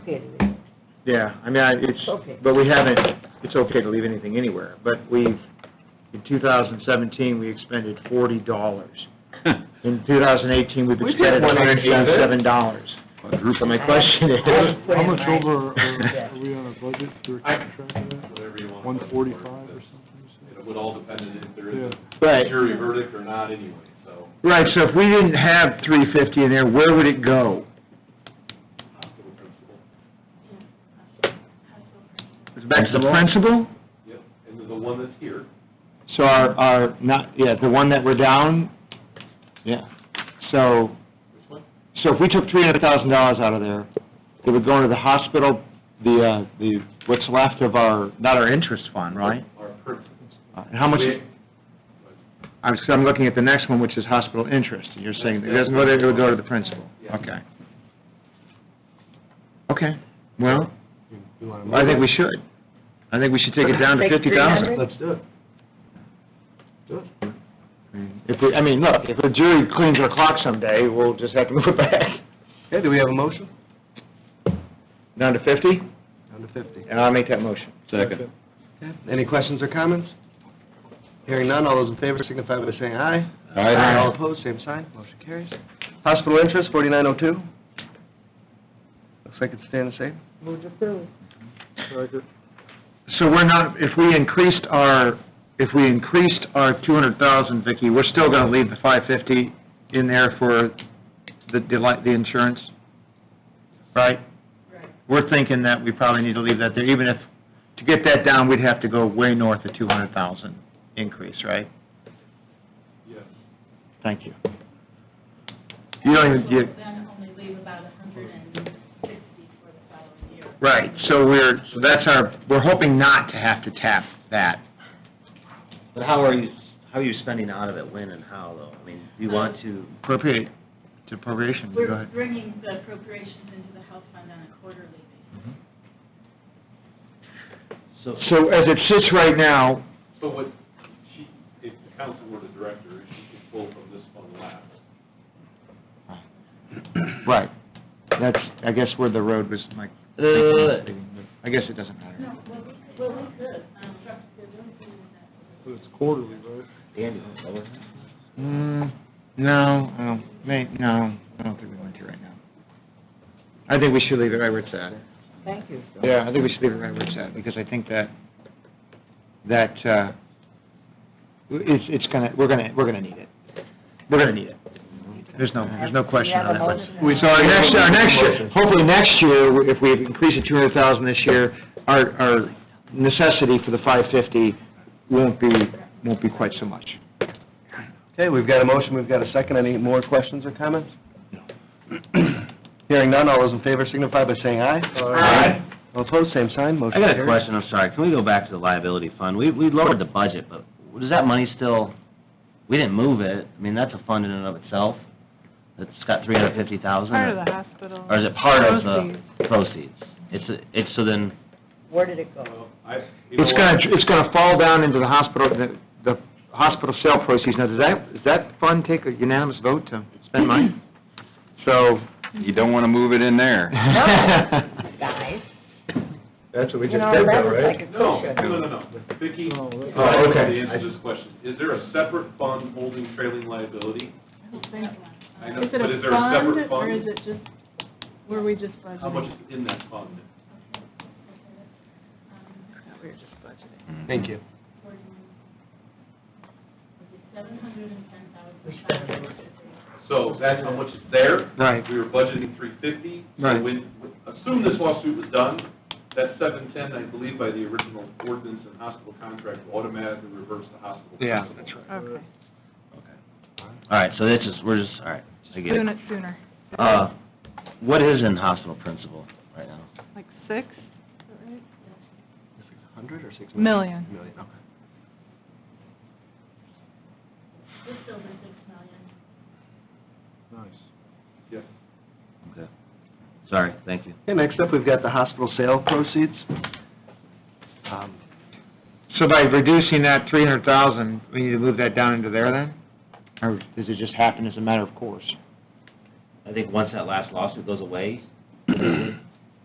Yeah, I mean, I- Okay. it's, but we haven't, it's okay to leave anything anywhere, but we've, in 2017, we expended $40. In 2018, we've We did expended one eighty of it. $177. So my question is, I put How in much my- over Yeah. are are we on our budget for track of that? whatever you want. One forty-five or something? you It would all depend on if there is said? a right, jury verdict or not anyway, so. right, so if we didn't have 350 in there, where would it go? hospital principal. Back to the principal? Yep, and the- the one that's here, So our, our, not, yeah, the one that we're down, yeah. So, which one? so if we took $300,000 out of there, it would go into the hospital, the, uh, the, what's left of our, not our interest fund, right? Our principal. Uh, And how much, We- I'm, so I'm looking at the next one, which is hospital interest, and you're saying it doesn't go there, it would go to the principal? Yeah. Okay. Okay, well, You wanna I move think it? we should. I think we should take it down to Take 50,000. 300? Let's do it. Do it. If, we- I mean, look, if a jury cleans our clock someday, we'll just have to move it back. Okay, do we have a motion? Down to 50, Down to fifty. and I'll make that motion. Second. Any questions or comments? Hearing none, all those in favor signify by saying aye. Aye. All opposed, same sign, motion carries. Hospital interest, forty-nine oh two. Looks like it's staying the same. Move to approve. So we're not, if we increased our, if we increased our 200,000, Vicki, we're still going to leave the 550 in there for the, deli- the insurance, right? We're thinking that we probably need to leave that there, even if, to get that down, we'd have to go way north of 200,000 increase, right? Yes. Thank you. You don't even, you, Then only leave about a hundred and sixty for the following year. Right, so we're, so that's our, we're hoping not to have to tap that. But how are you, how are you spending out of it, when and how, though? I mean, do you want to, Appropriate, to appropriation, go We're ahead. bringing the appropriations into the health fund on a quarterly basis. so, So as it sits right now, So what, she, if the council were the director, she could pull from this fund last. right, that's, I guess where the road was, my. Uh, I guess it doesn't matter. No, well, we could, well, we could, um, structure, really good with that. It's quarterly, right? Andy, over. Mm, no, I don't, may, no, I don't think we want to right now. I think we should leave it right where it's at. Thank you. Phil. Yeah, I think we should leave it right where it's at, because I think that, that, uh, it's, it's gonna, we're gonna, we're gonna need it. We're gonna need it. There's no, there's no question on that. We have a motion. We- So our next, our next, year- hopefully next year, if we increase it two hundred thousand this year, our, our necessity for the five fifty won't be, won't be quite so much. Okay, we've got a motion, we've got a second. Any more questions or comments? Hearing none, all those in favor signify by saying aye. Aye. All opposed, same sign, I motion got a carries. question, I'm sorry, can we go back to the liability fund? We, we lowered the budget, but does that money still, we didn't move it, I mean, that's a fund in and of itself, it's got three hundred fifty thousand. Part of the hospital. Or is it part of the proceeds? It's, a- it's, so then, Where did it go? Well, I, you know It's gonna, what? it's gonna fall down into the hospital, the, the hospital sale proceeds. Now, does that, does that fund take a unanimous vote to spend money? So. You don't want to move it in there. Guys? That's what we You know, that was like a No, cushion. no, no, no, Vicki, Oh, okay. I don't know Oh, okay. the answer to this question. Is there a separate fund holding trailing liability? I know, Is it but is a there a separate fund, or fund? is it just, were we just budgeting? How much is in that fund? We were just budgeting. Thank you. Seven hundred and ten thousand. So that's how much is there. Right. We were budgeting three fifty. Right. When, assume this lawsuit was done, that seven ten, I believe by the original ordinance and hospital contract, will automatically reverse the hospital. Yeah, principal. that's right. Okay, all right, so this is, we're just, all right, I get doing it. it sooner, Uh, what is in hospital principal right now? like six Hundred or six million? million. Million, okay. Just over six million. Yes. Okay, sorry, thank you. Okay, next up, we've got the hospital sale proceeds. Um, So by reducing that three hundred thousand, we need to move that down into there then? Or does it just happen as a matter of course? I think once that last lawsuit goes away,